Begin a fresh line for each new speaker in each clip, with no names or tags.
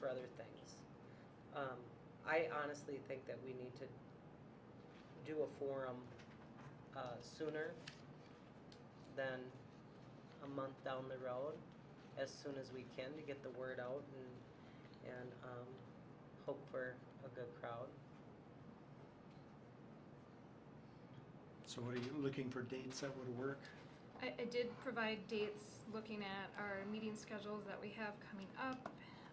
for other things. Um, I honestly think that we need to do a forum, uh, sooner than a month down the road, as soon as we can to get the word out and, and, um, hope for a good crowd.
So what are you looking for dates that would work?
I, I did provide dates looking at our meeting schedules that we have coming up,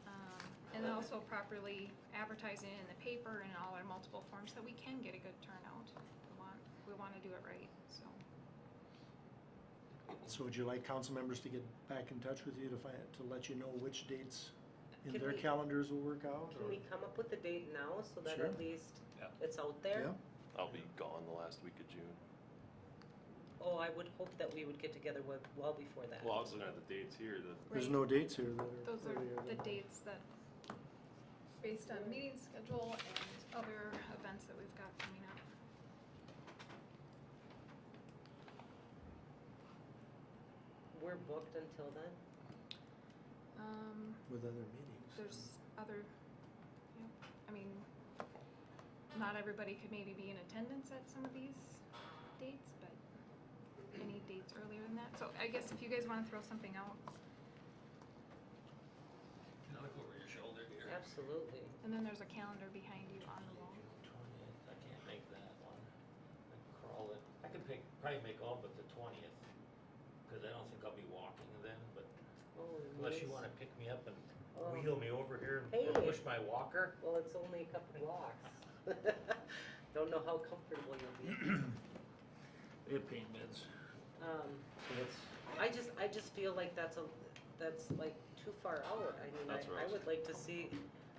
um, and then also properly advertising in the paper and all our multiple forms so we can get a good turnout. We want, we wanna do it right, so.
So would you like council members to get back in touch with you to find, to let you know which dates in
Can
their
we-
calendars will work out?
Can
or-
we come up with a date now so that
Sure.
at least
Yeah.
it's out
Yeah,
there?
I'll be gone the last week of June.
Oh, I would hope that we would get together with, well before that.
Well, I was looking at the dates here, the,
there's
Right.
no dates here that are
Those are
earlier
the
than-
dates that, based on meeting schedule and other events that we've got coming up.
We're booked until then?
Um,
With other meetings.
there's other, yeah, I mean, not everybody could maybe be in attendance at some of these dates, but any dates earlier than that, so I guess if you guys wanna throw something out,
Can I look over your shoulder here?
Absolutely.
and then there's a calendar behind you on the wall.
June twentieth, I can't make that one. I can crawl it. I could pick, probably make all but the twentieth, cause I don't think I'll be walking then, but
Oh,
unless you
nice.
wanna pick me up and
Oh.
wheel me over here and- or
Hey.
push my walker.
Well, it's only a couple blocks. Don't know how comfortable you'll be.
They have pain meds.
Um,
So that's,
I just, I just feel like that's a, that's like too far out. I mean,
That's
I,
where I
I
was
would like to see,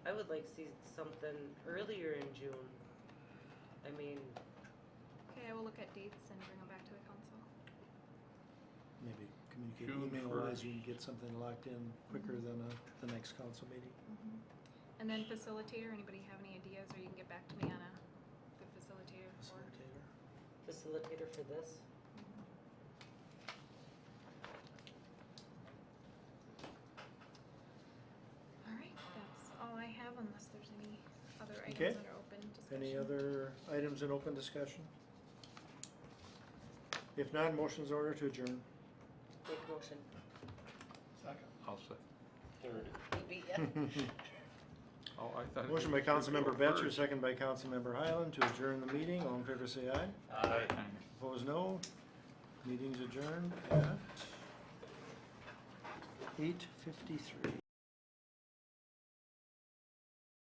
I would like to see something earlier in June. I mean,
Okay, I will look at dates and bring them back to the council.
Maybe communicate
June
email wise,
first.
you can get something locked in quicker
Mm-hmm.
than a, the next council meeting.
And then facilitator, anybody have any ideas, or you can get back to me on a, the facilitator for,
Facilitator.
facilitator for this.
alright, that's all I have unless there's any other
Okay.
items that are open discussion.
Any other items in open discussion? If not, motions order to adjourn.
Make motion.
I'll say.
third.
Oh, I thought. it
Motion by
was-
Councilmember Batchor,
First.
second by Councilmember Highland to adjourn the meeting. All in favor say aye.
uh,
Opposed, no. Meeting's adjourned at eight fifty-three.